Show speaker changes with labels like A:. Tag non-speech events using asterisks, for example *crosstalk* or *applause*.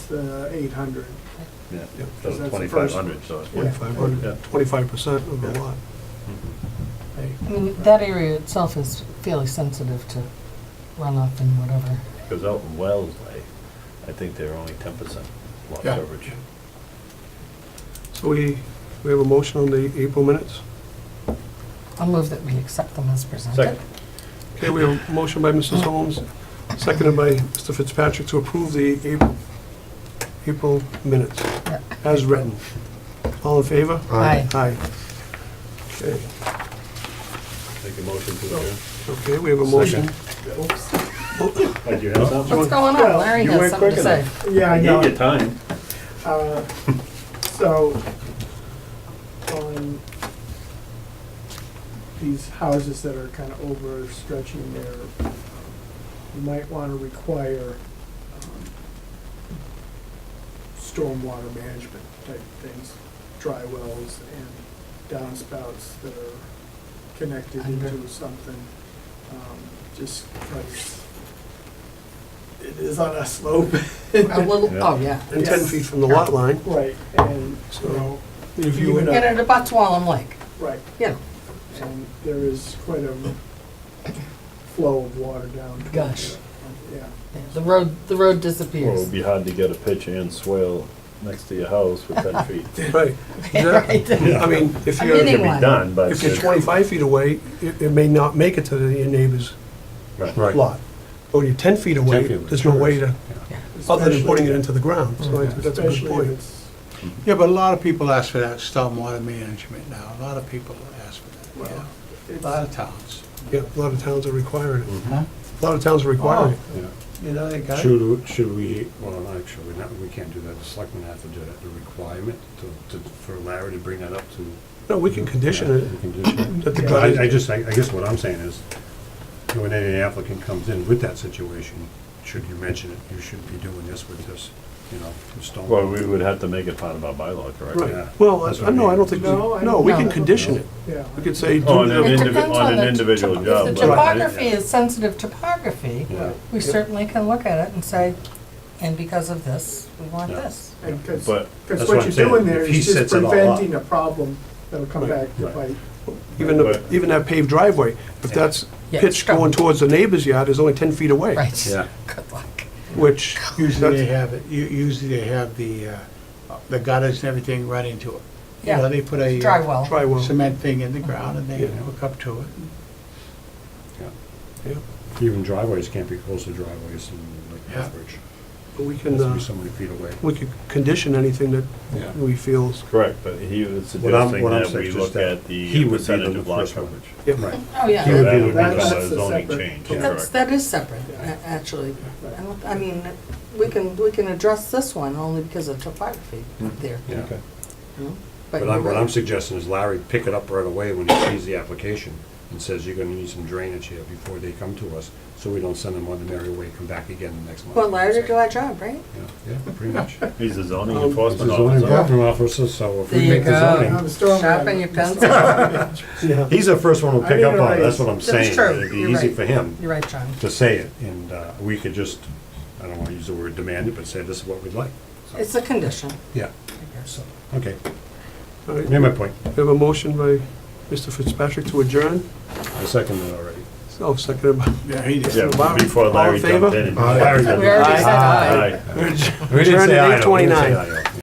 A: the Uh, eight hundred.
B: Yeah,
C: Yeah,
B: so
A: that's the first one.
B: twenty-five hundred, so it's
C: Twenty-five
B: Yeah.
C: hundred, twenty-five percent of the
B: Yeah.
C: lot. Hey,
D: I mean, that area itself is fairly sensitive to runoff and whatever.
B: Because out in Wells, I, I think they're only ten percent lot
C: Yeah.
B: coverage.
C: So we, we have a motion on the April minutes?
D: I'll move that we accept them as presented.
B: Second.
C: Okay, we have a motion by Mrs. Holmes, seconded by Mr. Fitzpatrick to approve the April, April minutes
D: Yeah.
C: as written. All in favor?
D: Aye.
C: Aye. Okay,
B: Make a motion to adjourn.
C: okay, we have a motion.
B: Oh, do you have something?
D: What's going on?
A: Well,
D: Larry
B: you
D: has
B: went
D: something to
B: quick
D: say.
B: enough.
A: Yeah,
B: I
A: I
B: gave
A: know.
B: you time.
A: Uh, So, on these houses that are kind of overstretching there, um, you might want to require um, stormwater management type things, dry wells and downspouts that are connected
D: Under.
A: into something, um, just because it is on a slope. *laughs*
D: A little, oh, yeah.
C: And ten feet from the lot line,
A: Right, and, you know,
C: if you,
A: Even
D: And it abuts Wallem Lake,
A: right,
D: you know.
A: and there is quite a flow of water down. towards
D: Gush.
A: it. Yeah,
D: The road, the road
B: Well, it'd
D: disappears.
B: be hard to get a pitch and swale next to your house with ten
D: *laughs*
B: feet.
C: right,
D: Right.
C: exactly. I mean, if
D: I'm
C: you're,
B: It
D: hitting-
B: can be done, but.
C: if you're
B: it's-
C: twenty-five feet away, it, it may not make it to your neighbor's
B: Right.
E: Right.
C: lot. But when you're ten feet away,
E: feet away,
C: there's no way to, other than putting it into the ground, so I think that's a good
A: especially if
C: point.
A: it's,
E: Yeah, but a lot of people ask for that stormwater management now. A lot of people ask for that,
A: well,
E: yeah. A lot
C: Uh,
A: it's,
E: of towns.
C: Yeah, a lot of towns are requiring it.
E: Huh?
C: A lot of towns are requiring it.
E: Yeah. You know, they got it.
F: Should, should we, well, not actually, we're not, we can't do that, the selectmen have to do that, the requirement to, to, for Larry to bring that up to.
C: No, we can condition
F: We
C: it.
F: can do that.
C: That the
F: But I, I
C: guy,
F: just, I, I guess what I'm saying is, when any applicant comes in with that situation, should you mention it, you should be doing this with this, you know, the stone.
B: Well, we would have to make it part of our bylaw, correct?
C: right,
F: yeah.
C: well, I-
F: That's
C: I,
F: what I
C: no, I
F: mean.
C: don't think, we-
A: No, I
C: no, we
D: don't-
C: can
D: No.
C: condition it.
A: yeah.
C: We could say,
B: On
C: do
B: an
D: It
B: individual,
D: depends
B: on
D: the
B: an individual
D: topo-
B: job.
D: If the
B: but-
D: topography is sensitive topography,
F: Yeah.
D: we certainly can look at it and say, and because of this, we want
F: Yeah.
D: this.
A: And cause,
B: But
A: 'cause
F: that's what
A: what
F: I'm
A: you're
F: saying,
A: doing there
F: if he
A: is just
F: sets it all up-
A: preventing a problem that'll come
C: Right,
A: back to
F: right.
A: bite.
C: even, the- even that paved driveway, if that's
D: Yeah,
C: pitched
D: strong.
C: going towards the neighbor's yard, is only ten feet away.
D: Right. *laughs*
F: Yeah.
D: Good luck.
C: Which,
E: Usually they
C: That's-
E: have it, u- usually they have the, uh, the gutters and everything right into it. You know,
D: Yeah,
E: they put a. uh,
D: dry well.
C: try well,
E: Cement thing in the ground and they
C: Yeah.
E: hook up to it.
C: yeah,
F: Even driveways can't be close to driveways in like
E: Yeah.
F: Lethbridge,
C: but we can,
F: has to
C: uh,
F: be so many feet away.
C: we could condition anything
F: Yeah.
C: that we feel,
B: Correct, but he was
F: What I'm-
B: suggesting
F: what I'm
B: that
F: saying
B: we
F: is
B: look
F: that
B: at
F: he
B: the
F: would be the
B: percentage of lot
F: first one.
B: coverage.
C: yeah,
F: Right.
D: Oh, yeah.
F: He would
B: That
F: be
B: would
F: the
B: become
A: That's-
F: first
B: a
F: one.
A: that's the
B: zoning
A: separate-
B: change,
F: Yeah.
D: That's,
B: correct?
D: that is separate, a- actually. I don't- I mean, we can, we can address this one only because of topography there.
F: Hmm. Yeah.
D: you know?
F: But
D: you're
F: I'm, what
D: right.
F: I'm suggesting is Larry pick it up right away when he sees the application and says, you're gonna need some drainage here before they come to us, so we don't send them on the merry way, come back again the next month.
D: Well, Larry did our job, right?
F: Yeah, yeah, pretty much.
B: He's a zoning
C: Um,
F: It's a
B: enforcement
F: zoning
B: officer.
F: enforcement officer, so if
D: There
F: we
D: you
F: make the
D: go.
F: zoning,
A: On the storm
D: Sharpen
A: damage. *laughs*
D: your pencil.
F: *laughs*
C: yeah.
F: he's the first one to
A: I
F: pick
A: need
F: up
A: a
F: on it,
A: raise.
F: that's what I'm
D: That's
F: saying.
D: true.
F: It'd be
D: You're
F: easy
D: right.
F: for him
D: You're right, John.
F: to say it, and, uh, we could just, I don't wanna use the word demand it, but say this is what we'd like.
D: It's a condition.
F: Yeah, so, okay,
C: All right,
F: made my point,
C: We have a motion by Mr. Fitzpatrick to adjourn,
F: I second that already.
C: so seconded by
E: Yeah, he did.
B: Yeah, before
C: All in
B: Larry
C: favor?
B: jumped in. and-
F: Aye.
D: We already said aye.
B: Aye.
F: We didn't
C: Adjourned
F: say
C: at
F: aye, though. We didn't say
C: 8:29.
F: aye, though.